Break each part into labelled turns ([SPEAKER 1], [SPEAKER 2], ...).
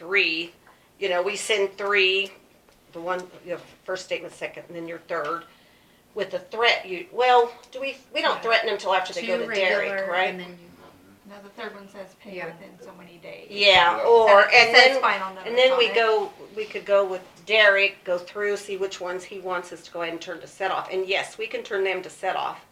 [SPEAKER 1] three, you know, we send three, the one, you know, first statement, second, and then your third, with the threat, you, well, do we, we don't
[SPEAKER 2] Yeah.
[SPEAKER 1] threaten them till after they go
[SPEAKER 2] Two
[SPEAKER 1] to Derek,
[SPEAKER 2] regular,
[SPEAKER 1] right?
[SPEAKER 2] And then you,
[SPEAKER 3] No, the third one says pay
[SPEAKER 2] Yeah.
[SPEAKER 3] within so many days.
[SPEAKER 1] Yeah,
[SPEAKER 4] Yeah.
[SPEAKER 1] or,
[SPEAKER 3] It
[SPEAKER 1] and
[SPEAKER 3] says
[SPEAKER 1] then,
[SPEAKER 3] final numbers
[SPEAKER 1] and then
[SPEAKER 3] on
[SPEAKER 1] we
[SPEAKER 3] it.
[SPEAKER 1] go, we could go with Derek, go through, see which ones he wants us to go ahead and turn to set off, and yes, we can turn them to set off.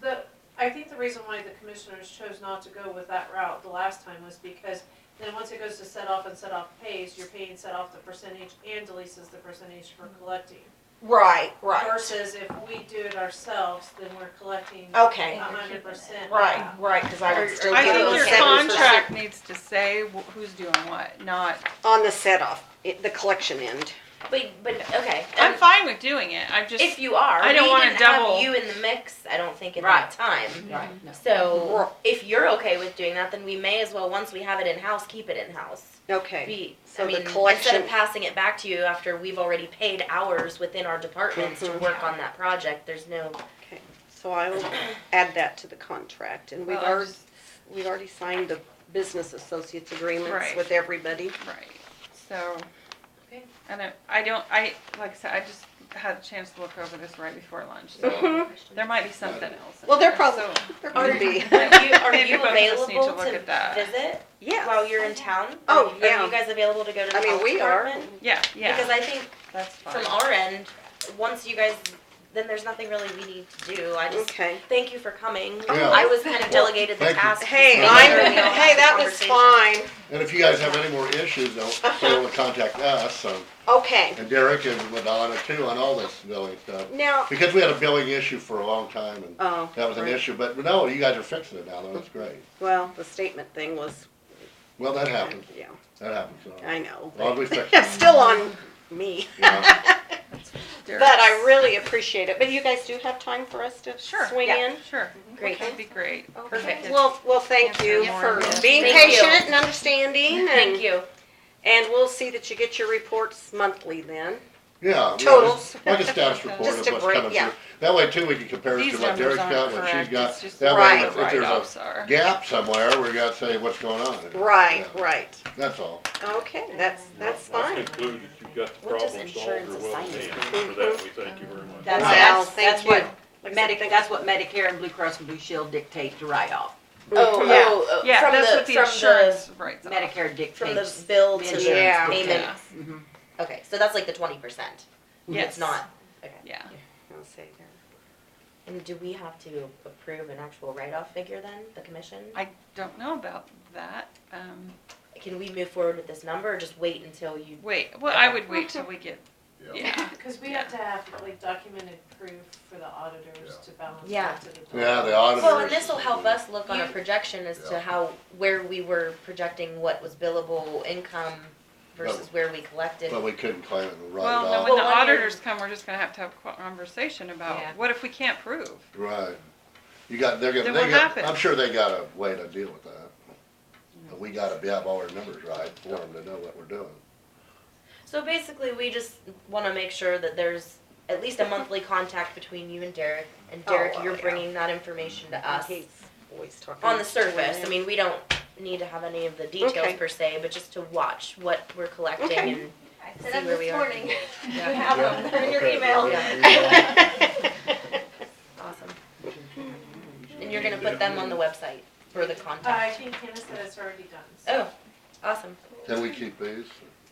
[SPEAKER 5] The, I think the reason why the commissioners chose not to go with that route the last time was because then once it goes to set off and set off pays, you're paying set off the percentage and deletes the percentage for collecting.
[SPEAKER 1] Right,
[SPEAKER 5] Versus if we do it ourselves, then we're collecting a
[SPEAKER 1] Okay,
[SPEAKER 5] hundred percent.
[SPEAKER 1] Oh, right, right, cause I would still
[SPEAKER 6] I
[SPEAKER 1] give
[SPEAKER 6] think
[SPEAKER 1] them
[SPEAKER 6] your
[SPEAKER 1] seven percent
[SPEAKER 6] contract needs to say wh- who's doing what, not,
[SPEAKER 1] on the set off, it- the collection end.
[SPEAKER 2] but, but, okay.
[SPEAKER 6] I'm
[SPEAKER 2] um,
[SPEAKER 6] fine with doing it, I'm just,
[SPEAKER 2] If you are,
[SPEAKER 6] I don't
[SPEAKER 2] we
[SPEAKER 6] wanna
[SPEAKER 2] didn't
[SPEAKER 6] double-
[SPEAKER 2] have you in the mix, I don't think, at
[SPEAKER 1] Right.
[SPEAKER 2] that time.
[SPEAKER 1] Right.
[SPEAKER 2] So if you're okay with doing that, then we may as well, once we have it in-house, keep it in-house.
[SPEAKER 1] Okay,
[SPEAKER 2] Be,
[SPEAKER 1] So the
[SPEAKER 2] I mean, instead
[SPEAKER 1] collection-
[SPEAKER 2] of passing it back to you after we've already paid hours within our departments to
[SPEAKER 1] Mhm.
[SPEAKER 2] work on that project, there's no,
[SPEAKER 1] so I will add that to the contract, and we've
[SPEAKER 6] Well, I
[SPEAKER 1] already,
[SPEAKER 6] just-
[SPEAKER 1] we've already signed the business associates agreements
[SPEAKER 6] Right.
[SPEAKER 1] with everybody.
[SPEAKER 6] right, so.
[SPEAKER 5] Okay.
[SPEAKER 6] I don't, I don't, I, like I said, I just had a chance to look over this right before lunch, so
[SPEAKER 1] Mhm.
[SPEAKER 6] there might be something else. in
[SPEAKER 1] Well, there
[SPEAKER 6] there,
[SPEAKER 1] probably,
[SPEAKER 6] so-
[SPEAKER 1] there
[SPEAKER 2] Oh,
[SPEAKER 1] could be,
[SPEAKER 2] are you, are
[SPEAKER 6] Maybe
[SPEAKER 2] you
[SPEAKER 6] both of us need to
[SPEAKER 2] available
[SPEAKER 6] look
[SPEAKER 2] to
[SPEAKER 6] at that.
[SPEAKER 2] visit
[SPEAKER 1] yeah.
[SPEAKER 2] while you're in town?
[SPEAKER 1] Oh,
[SPEAKER 2] Are you-
[SPEAKER 1] yeah.
[SPEAKER 2] Are you guys available to go to the
[SPEAKER 1] I mean,
[SPEAKER 2] health
[SPEAKER 1] we are.
[SPEAKER 2] department?
[SPEAKER 6] Yeah,
[SPEAKER 2] Because
[SPEAKER 6] yeah,
[SPEAKER 2] I think
[SPEAKER 6] that's fine.
[SPEAKER 2] from our end, once you guys, then there's nothing really we need to do, I just,
[SPEAKER 1] Okay.
[SPEAKER 2] thank you for coming.
[SPEAKER 4] Yeah.
[SPEAKER 2] I was kind of delegated the
[SPEAKER 4] Thank you.
[SPEAKER 2] task. of
[SPEAKER 1] Hey,
[SPEAKER 2] making
[SPEAKER 1] I'm,
[SPEAKER 2] sure we all
[SPEAKER 1] hey,
[SPEAKER 2] had
[SPEAKER 1] that was
[SPEAKER 2] conversation.
[SPEAKER 1] fine.
[SPEAKER 4] And if you guys have any more issues, don't fail to contact us, so,
[SPEAKER 1] Okay,
[SPEAKER 4] and Derek and Madonna too on all this billing stuff.
[SPEAKER 1] now,
[SPEAKER 4] Because we had a billing issue for a long time and
[SPEAKER 1] oh.
[SPEAKER 4] that was an
[SPEAKER 1] right.
[SPEAKER 4] issue, but no, you guys are fixing it now, though, that's great.
[SPEAKER 1] Well, the statement thing was,
[SPEAKER 4] Well, that happens,
[SPEAKER 1] yeah,
[SPEAKER 4] that happens, so,
[SPEAKER 1] I know.
[SPEAKER 4] as long as we fix it,
[SPEAKER 1] It's still on me,
[SPEAKER 4] you know.
[SPEAKER 1] but I really appreciate it. But you guys do have time for us to
[SPEAKER 6] Sure,
[SPEAKER 1] swing
[SPEAKER 2] yeah.
[SPEAKER 1] in?
[SPEAKER 6] Sure,
[SPEAKER 2] Great.
[SPEAKER 6] that'd be great.
[SPEAKER 2] Perfect.
[SPEAKER 1] Well, well, thank you
[SPEAKER 6] Yeah.
[SPEAKER 1] for
[SPEAKER 6] Yeah.
[SPEAKER 1] being
[SPEAKER 2] Thank you.
[SPEAKER 1] patient and understanding
[SPEAKER 2] Thank
[SPEAKER 1] and,
[SPEAKER 2] you.
[SPEAKER 1] and we'll see that you get your reports monthly then.
[SPEAKER 4] Yeah. yeah,
[SPEAKER 1] Totals.
[SPEAKER 4] just Like a status report
[SPEAKER 1] Just
[SPEAKER 4] of
[SPEAKER 1] a
[SPEAKER 4] what's
[SPEAKER 1] break,
[SPEAKER 4] coming
[SPEAKER 1] yeah.
[SPEAKER 4] through. That way too, we can compare it to
[SPEAKER 6] These
[SPEAKER 4] what
[SPEAKER 6] numbers
[SPEAKER 4] Derek's got,
[SPEAKER 6] aren't
[SPEAKER 4] what she's
[SPEAKER 6] correct,
[SPEAKER 4] got.
[SPEAKER 6] it's just
[SPEAKER 4] That
[SPEAKER 6] what
[SPEAKER 4] way,
[SPEAKER 1] Right.
[SPEAKER 6] the
[SPEAKER 4] if if there's
[SPEAKER 6] write-offs
[SPEAKER 4] a
[SPEAKER 6] are.
[SPEAKER 4] gap somewhere, we gotta say what's going on.
[SPEAKER 1] Right,
[SPEAKER 4] Yeah,
[SPEAKER 1] right.
[SPEAKER 4] That's all.
[SPEAKER 1] Okay, that's, that's
[SPEAKER 7] Well,
[SPEAKER 1] fine.
[SPEAKER 7] That's concluded, you've got the
[SPEAKER 2] What does
[SPEAKER 7] problem solved,
[SPEAKER 2] insurance
[SPEAKER 7] you're well in
[SPEAKER 2] assign
[SPEAKER 7] hand,
[SPEAKER 1] you?
[SPEAKER 7] for that, we thank you very much.
[SPEAKER 8] That's,
[SPEAKER 4] Wow.
[SPEAKER 1] Wow,
[SPEAKER 8] that's,
[SPEAKER 1] thank
[SPEAKER 8] that's what
[SPEAKER 1] you. Like I said,
[SPEAKER 8] Medic,
[SPEAKER 1] thank-
[SPEAKER 8] that's what Medicare and Blue Cross and Blue Shield dictate to write off.
[SPEAKER 2] Oh,
[SPEAKER 1] Yeah.
[SPEAKER 2] oh, oh,
[SPEAKER 6] Yeah,
[SPEAKER 2] from
[SPEAKER 6] that's
[SPEAKER 2] the,
[SPEAKER 6] what the
[SPEAKER 2] from
[SPEAKER 6] insurance writes off.
[SPEAKER 8] Medicare
[SPEAKER 2] from the
[SPEAKER 8] dictates.
[SPEAKER 2] bill to the
[SPEAKER 1] Yeah.
[SPEAKER 2] payment.
[SPEAKER 6] Yeah.
[SPEAKER 8] Mhm.
[SPEAKER 2] Okay, so that's like the twenty percent.
[SPEAKER 6] Yes.
[SPEAKER 2] It's not.
[SPEAKER 6] Yeah,
[SPEAKER 1] I'll say that.
[SPEAKER 2] And do we have to approve an actual write-off figure then, the commission?
[SPEAKER 6] I don't know about that, um,
[SPEAKER 2] Can we move forward with this number or just wait until you?
[SPEAKER 6] wait, well, I would wait till we get, yeah,
[SPEAKER 5] Cause we have to have like documented proof for the auditors to balance
[SPEAKER 2] Yeah.
[SPEAKER 5] out to the.
[SPEAKER 4] Yeah, the
[SPEAKER 2] Well, and
[SPEAKER 4] auditors.
[SPEAKER 2] this will help us look on a
[SPEAKER 5] You-
[SPEAKER 2] projection as to
[SPEAKER 4] Yeah.
[SPEAKER 2] how, where we were projecting what was billable income versus where we collected.
[SPEAKER 4] But we couldn't claim it and
[SPEAKER 6] well, no, when
[SPEAKER 4] write it
[SPEAKER 6] the
[SPEAKER 2] Well, when you're-
[SPEAKER 6] auditors come, we're just gonna have to have a conversation
[SPEAKER 8] Yeah.
[SPEAKER 6] about, what if we can't prove?
[SPEAKER 4] off. Right. You got, they're gonna,
[SPEAKER 6] Then
[SPEAKER 4] they
[SPEAKER 6] what
[SPEAKER 4] got,
[SPEAKER 6] happens?
[SPEAKER 4] I'm sure they got a way to deal with that. But we gotta be, have all our numbers right for them to know what we're doing.
[SPEAKER 2] So basically, we just wanna make sure that there's at least a monthly contact between you and Derek, and
[SPEAKER 1] Oh,
[SPEAKER 2] Derek,
[SPEAKER 1] well,
[SPEAKER 2] you're
[SPEAKER 1] yeah.
[SPEAKER 2] bringing that information to us.
[SPEAKER 1] He's always talking.
[SPEAKER 2] on the surface, I mean, we don't need to have any of the details
[SPEAKER 1] Okay.
[SPEAKER 2] per se, but just to watch what we're collecting
[SPEAKER 1] Okay.
[SPEAKER 2] and.
[SPEAKER 3] I
[SPEAKER 2] See where we are.
[SPEAKER 3] You have them, they're in your
[SPEAKER 4] Okay.
[SPEAKER 3] email.
[SPEAKER 2] Awesome. And you're gonna put them on the website for the contact.
[SPEAKER 5] I think Hannah said it's already done, so.
[SPEAKER 2] Oh, awesome.
[SPEAKER 4] Can we keep these?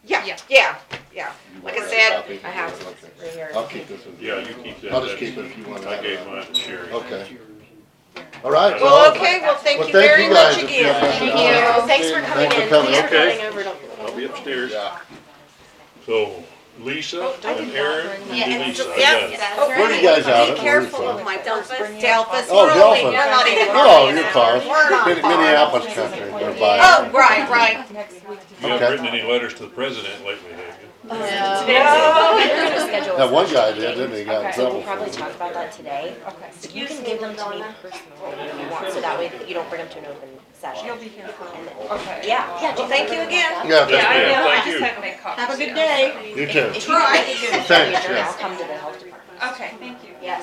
[SPEAKER 1] Yeah,
[SPEAKER 6] Yeah.
[SPEAKER 1] yeah, yeah.
[SPEAKER 4] You
[SPEAKER 1] Like I
[SPEAKER 4] want
[SPEAKER 1] said,
[SPEAKER 4] copies?
[SPEAKER 2] I have
[SPEAKER 4] Okay.
[SPEAKER 2] right here.
[SPEAKER 4] I'll keep this. in-
[SPEAKER 7] Yeah, you keep that.
[SPEAKER 4] I'll just
[SPEAKER 7] that's-
[SPEAKER 4] keep it if you want to
[SPEAKER 7] I
[SPEAKER 4] have
[SPEAKER 7] gave
[SPEAKER 4] it.
[SPEAKER 7] mine to Sherry.
[SPEAKER 4] Okay. All right.
[SPEAKER 1] Well, okay, well, thank
[SPEAKER 4] Well,
[SPEAKER 1] you very much
[SPEAKER 4] guys if you
[SPEAKER 1] again.
[SPEAKER 4] have
[SPEAKER 1] Thank
[SPEAKER 4] nothing else.
[SPEAKER 1] you.
[SPEAKER 2] Thanks for coming
[SPEAKER 4] Thanks for
[SPEAKER 2] in.
[SPEAKER 4] coming.
[SPEAKER 2] Thanks for
[SPEAKER 7] Okay.
[SPEAKER 2] coming over. to-
[SPEAKER 7] I'll be upstairs.
[SPEAKER 4] Yeah.
[SPEAKER 7] So
[SPEAKER 2] Oh,
[SPEAKER 7] Lisa and Aaron and
[SPEAKER 3] Yeah, it's
[SPEAKER 7] Denise, I
[SPEAKER 3] just-
[SPEAKER 7] got
[SPEAKER 1] yeah,
[SPEAKER 7] it.
[SPEAKER 1] Oh,
[SPEAKER 4] Where are you guys out
[SPEAKER 1] Be
[SPEAKER 4] at?
[SPEAKER 1] careful
[SPEAKER 4] Where are you
[SPEAKER 1] of my Delphus,
[SPEAKER 3] Delphus.
[SPEAKER 1] Delphus,
[SPEAKER 4] Oh,
[SPEAKER 1] we're only,
[SPEAKER 4] Delphis.
[SPEAKER 1] we're not even.
[SPEAKER 4] Oh, you're far.
[SPEAKER 1] We're not
[SPEAKER 4] Min-
[SPEAKER 1] far.
[SPEAKER 4] Minneapolis country, they're by.
[SPEAKER 1] Oh, right, right.
[SPEAKER 7] You haven't written any letters to the president lately, have you?
[SPEAKER 2] We're gonna schedule
[SPEAKER 4] That one guy
[SPEAKER 2] something.
[SPEAKER 4] did, didn't he? He Got in
[SPEAKER 2] So
[SPEAKER 4] trouble
[SPEAKER 2] we'll
[SPEAKER 4] for
[SPEAKER 2] probably
[SPEAKER 4] it.
[SPEAKER 2] talk about that today. Okay. So you can give them to me personally if you want, so that way you don't bring them to an open session.
[SPEAKER 6] You'll be here for,
[SPEAKER 2] And then-
[SPEAKER 6] okay.
[SPEAKER 2] Yeah, yeah.
[SPEAKER 1] Well, thank you again.
[SPEAKER 4] Yeah,
[SPEAKER 6] Yeah, I
[SPEAKER 7] Yeah,
[SPEAKER 6] know, I
[SPEAKER 7] thank
[SPEAKER 6] just
[SPEAKER 7] you.
[SPEAKER 6] had to make copies.
[SPEAKER 1] Have a good
[SPEAKER 6] yeah,
[SPEAKER 1] day.
[SPEAKER 6] so.
[SPEAKER 4] You too.
[SPEAKER 2] If you
[SPEAKER 1] Try.
[SPEAKER 4] Thanks,
[SPEAKER 2] Thanks,
[SPEAKER 4] Jeff.
[SPEAKER 2] Come to the health department.
[SPEAKER 6] Okay, thank you.
[SPEAKER 2] Yes.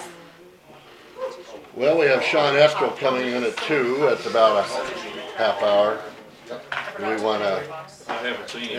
[SPEAKER 4] Well, we have Sean Eskel coming in at two. It's about a half hour. Do we want to?
[SPEAKER 7] I haven't seen